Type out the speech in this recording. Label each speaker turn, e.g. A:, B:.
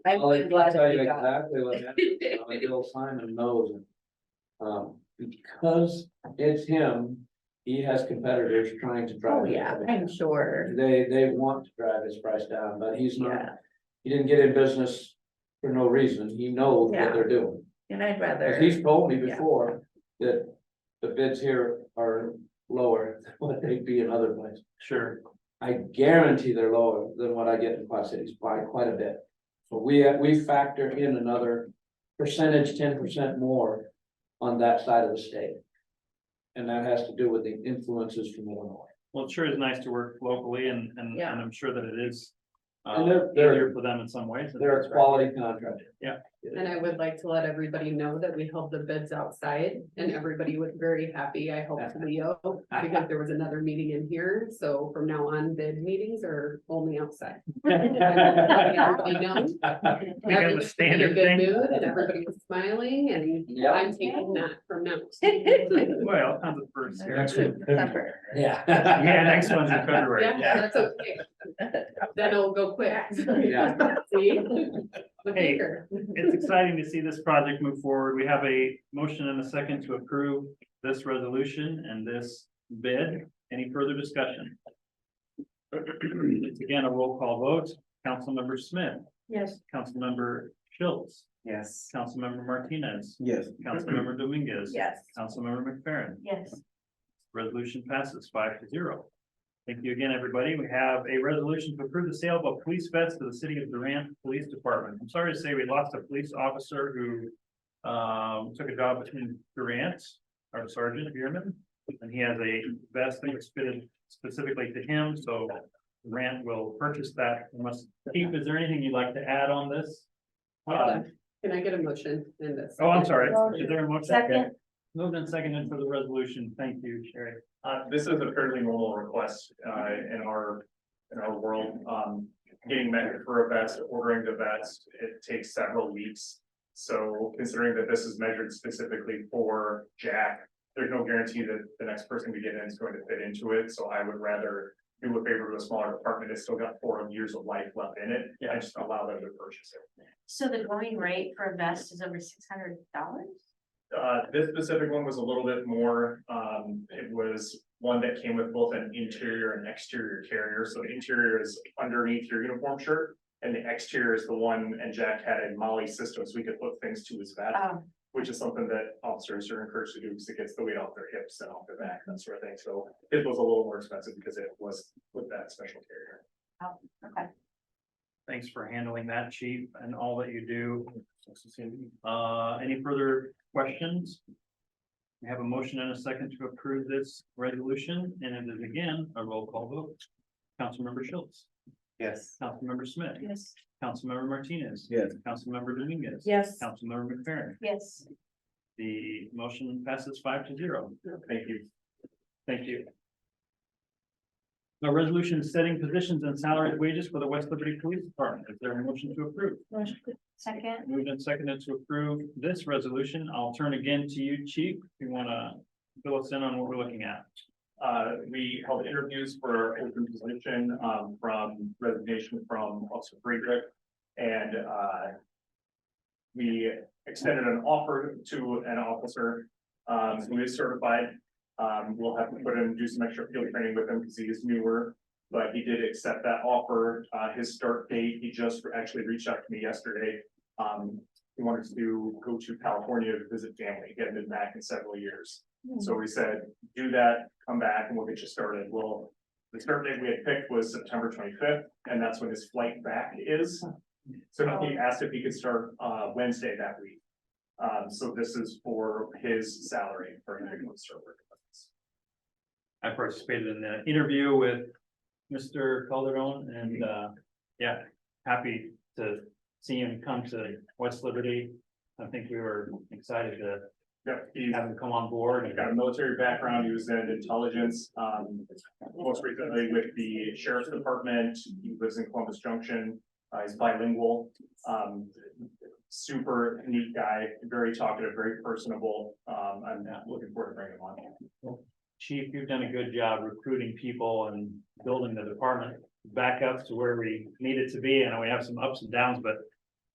A: I
B: I'll
A: would love
B: tell
A: to
B: you
A: be God.
B: exactly what happened, uh, Bill Simon knows. and, Um, because it's him, he has competitors trying to drive.
A: Oh,
B: his
A: yeah,
B: price
A: I'm sure.
B: down. They, they want to drive his price down, but he's not,
A: Yeah,
B: he didn't get in business for no reason, he knows what
A: Yeah.
B: they're doing.
A: and I'd
B: 'Cause
A: rather,
B: he's told me
A: Yeah.
B: before that the bids here are lower than what they'd be in other places.
C: Sure.
B: I guarantee they're lower than what I get in Quad Cities by quite a bit. So we, we factor in another percentage, ten percent more on that side of the state. And that has to do with the influences from Illinois.
C: Well, it sure is nice to work locally and, and,
A: Yeah.
C: and I'm sure that it is. Uh,
B: And they're- they're-
C: easier for them in some ways.
B: They're a quality contractor.
D: And I would like to let everybody know that we held the bids outside and everybody was very happy. I helped Leo because there was another meeting in here. So from now on, bid meetings are only outside. Everybody knows. Everybody was in a good mood and everybody was smiling and
B: Yeah.
D: I'm taking that from now.
C: Well, on the first here.
A: September.
B: Yeah.
C: Yeah, next one's in February.
D: Yeah, that's okay. Then it'll go quick.
B: Yeah.
D: See? Look
C: Hey.
D: here.
C: It's exciting to see this project move forward. We have a motion and a second to approve this resolution and this bid. Any further discussion? It's again a roll call vote. Councilmember Smith,
A: Yes.
C: Councilmember Schultz,
E: Yes.
C: Councilmember Martinez,
B: Yes.
C: Councilmember Dominguez.
A: Yes.
F: uh,
C: Councilmember McFerrin.
A: Yes.
C: Resolution passes five to zero. Thank you again, everybody. We have a resolution to approve the sale of a police vest to the city of Durant Police Department. I'm sorry to say we lost a police officer who um, took a job in Durant, our Sergeant Bierman, and he has a vest that was fitted specifically to him, so Durant will purchase that. Must, Keith, is there anything you'd like to add on this? Uh,
D: Can I get a motion in this?
C: Oh, I'm sorry. Is there a motion?
A: Second.
C: Moved and seconded for the resolution. Thank you, Sherry.
F: Uh, this is a fairly normal request, uh, in our, in our world, um, getting measured for a vest, ordering the vest, it takes several weeks. So considering that this is measured specifically for Jack, there's no guarantee that the next person we get in is going to fit into it, so I would rather do a favor to a smaller department that's still got four years of life left in it,
C: Yeah.
F: and just allow them to purchase it.
G: So the going rate for a vest is over six hundred dollars?
F: Uh, this specific one was a little bit more, um, it was one that came with both an interior and exterior carrier, so the interior is underneath your uniform shirt. And the exterior is the one, and Jack had a Molly system, so we could hook things to his vest,
A: Um,
G: Oh,
F: which is something that officers are encouraged to do, because it gets the weight off their hips and off their back, that sort of thing, so. It was a little more expensive because it was with that special carrier.
G: okay.
C: Thanks for handling that, chief, and all that you do. Uh, any further questions? We have a motion and a second to approve this resolution, and it is again a roll call vote. Councilmember Schultz,
E: Yes.
C: Councilmember Smith,
G: Yes.
C: Councilmember Martinez.
E: Yes.
C: Councilmember Dominguez.
A: Yes.
C: Councilmember McFerrin.
G: Yes.
C: The motion passes five to zero.
F: Thank you.
C: Thank you. A resolution setting positions and salary wages for the West Liberty Police Department. Is there a motion to approve?
G: Second,
C: Moved and seconded to approve this resolution. I'll turn again to you, Chief, if you want to fill us in on what we're looking at.
F: Uh, we held interviews for open position, um, from resignation from Officer Friedrich. And, uh, we extended an offer to an officer, um, who is certified. Um, we'll have to put him, do some extra field training with him because he is newer, but he did accept that offer. Uh, his start date, he just actually reached out to me yesterday. Um, he wanted to go to California to visit family. He hadn't been back in several years. So we said, do that, come back and we'll get you started. Well, the start date we had picked was September twenty-fifth, and that's when his flight back is. So he asked if he could start, uh, Wednesday that week. Um, so this is for his salary for him to start working with us.
C: I participated in the interview with Mr. Calderon and, uh, yeah, happy to see him come to West Liberty. I think we were excited to
F: Yep, he's
C: have him come on board and
F: got a military background, he was in intelligence, um, most recently with the sheriff's department, he lives in Columbus Junction, uh, he's bilingual. Um, super neat guy, very talkative, very personable, um, I'm looking forward to bringing him on.
C: Chief, you've done a good job recruiting people and building the department back up to where we need it to be. And we have some ups and downs, but